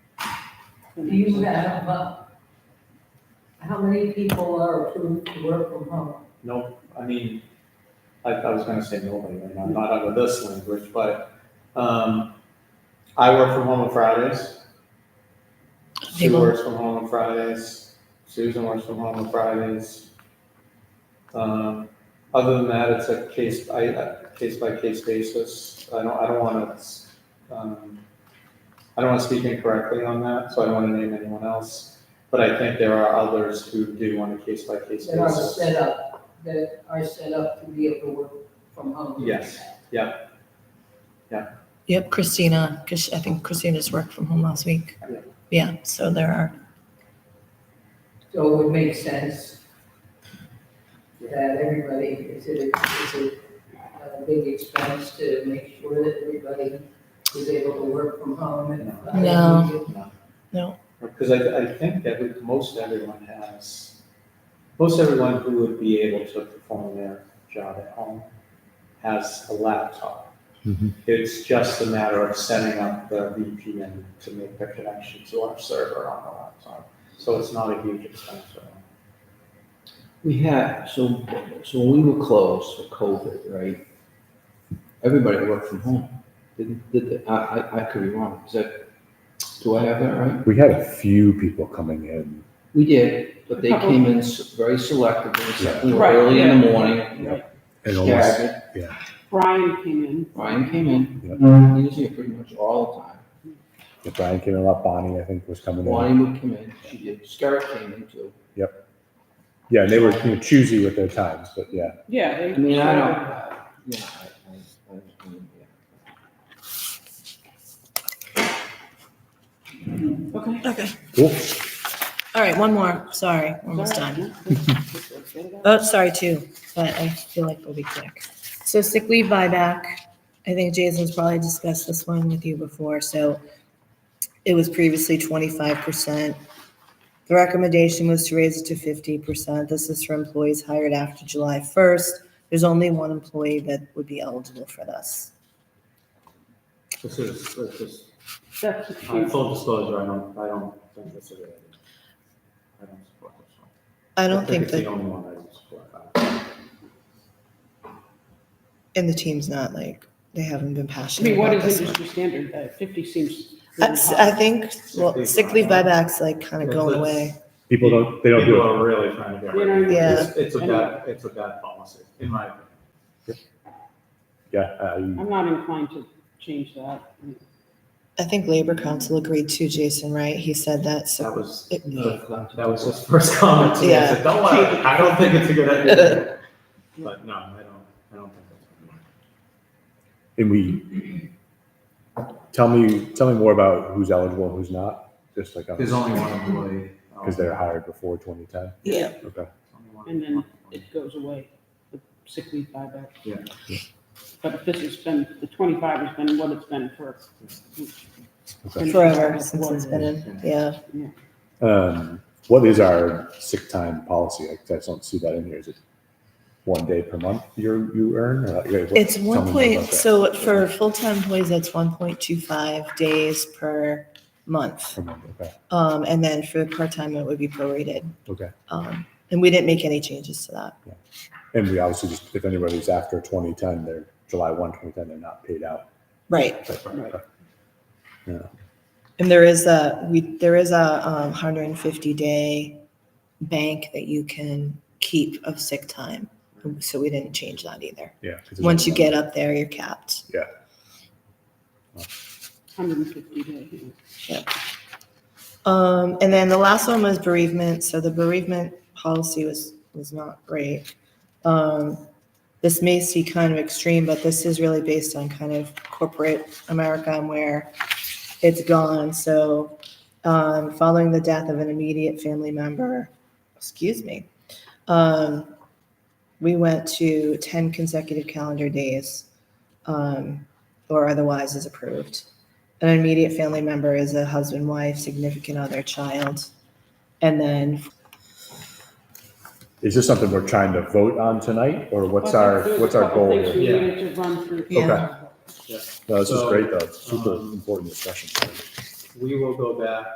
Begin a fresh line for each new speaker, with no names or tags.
Do you have, uh, how many people are approved to work from home?
No, I mean, I, I was gonna say nobody, and I'm not under this language, but, um, I work from home on Fridays. She
Table.
works from home on Fridays, Susan works from home on Fridays. Um, other than that, it's a case, I, uh, case by case basis, I don't, I don't wanna, um, I don't wanna speak incorrectly on that, so I don't wanna name anyone else, but I think there are others who do on a case by case
That are
basis.
set up, that are set up to be able to work from home?
Yes.
Yep, Christina, because I think Christina's worked from home last week.
Yeah.
Yeah, so there are,
So it would make sense that everybody, it's a, it's a, a big expense to make sure that everybody is able to work from home and. uh,
No.
Because I, I think every, most everyone has, most everyone who would be able to perform their job at home has a laptop.
Mm-hmm.
Mhm.
It's just a matter of setting up the VPN to make the connection to our server on the laptop. So it's not a huge expense. at all.
We had, so, so when we were closed for COVID, right? Everybody worked from home, didn't, did, they? I, I, I could be wrong, is that, do I have that right?
We had a few people coming in.
We did, but they came in s- very selectively, except we were
Right,
early in the
Yeah.
morning.
And almost,
Scattered.
Brian came in.
Ryan came in,
Yeah.
he was here pretty much all the time.
if Brian came in, up, Bonnie, I think, was coming in.
Bonnie would come in, she did, Scarrett came in too.
Yeah, and they were you know, choosy with their times, but yeah.
Yeah.
I
they-
mean, I don't, yeah, I, I, I, I mean, yeah.
Okay.
okay.
Cool.
All right, one more, sorry, almost done.
done.
Oh, sorry, two, but I feel like we'll be quick. So sick leave buyback, I think Jason's probably discussed this one with you before, so it was previously twenty-five percent. The recommendation was to raise it to fifty percent. This is for employees hired after July first. There's only one employee that would be eligible for this.
This is, this is,
That's a
uh,
change.
full disclosure, I don't, I don't think this is a good idea. I don't support this one.
I don't think
It's the
that,
only one I don't support.
and the team's not like, they haven't been
I
passionate
mean, what
about
is
this one.
industry standard? Uh, Fifty seems. really
That's, I
high.
think, well, sick leave buyback's like kind of going
Let's-
away.
People don't, they don't do
People
it.
are really trying to get
They
rid of
don't.
it.
Yeah.
It's- It's a bad, it's a bad policy, in my opinion.
Yeah, uh,
I'm not inclined to change that.
I think Labor Council agreed too, Jason, right? He said that,
That
so,
was,
it-
that was his first comment to me. I said, don't worry, I don't think it's a good idea. But no, I don't, I don't think that's. a good idea.
and we, tell me, tell me more about who's eligible and who's not, just like,
There's
because
only one employee. um,
they're hired before 2010.
yeah.
Okay.
only one
And then
employee.
It goes away, the sick leave buyback.
Yeah.
But this has been, the twenty-five has been what it's been for.
Okay.
Forever since it's been in, yeah.
Um, what is our sick time policy? I just don't see that in here. Is it one day per month you, you earn? or, like, what-
It's
tell me more
one
about
point,
that.
so for full-time employees, that's one point two five days per month.
Per month, Okay,
Um, and then for part-time, it would be prorated.
okay.
Um, and we didn't make any changes to that.
And we obviously just, if anybody's after twenty ten, they're July one, twenty ten, they're not paid out. uh,
Right.
Right.
And there is a, we, there is a, um, hundred and fifty day bank that you can keep of sick time. So we didn't change that either.
Yeah. 'cause there's
Once you
no-
get up there, you're capped.
Hundred and fifty days.
Um, and then the last one was bereavement. So the bereavement policy was, was not great. Um, this may seem kind of extreme, but this is really based on kind of corporate America and where it's gone. So, um, following the death of an immediate family member, excuse me, um, we went to 10 consecutive calendar days, um, or otherwise is approved. An immediate family member is a husband, wife, significant other, child. And then,
Is this something we're trying to vote on tonight or what's our, what's our goal?
There's a couple things
here?
we
here?
needed to run through.
Yeah.
No, this is
So,
great though. Super
um,
important discussion.
We will go back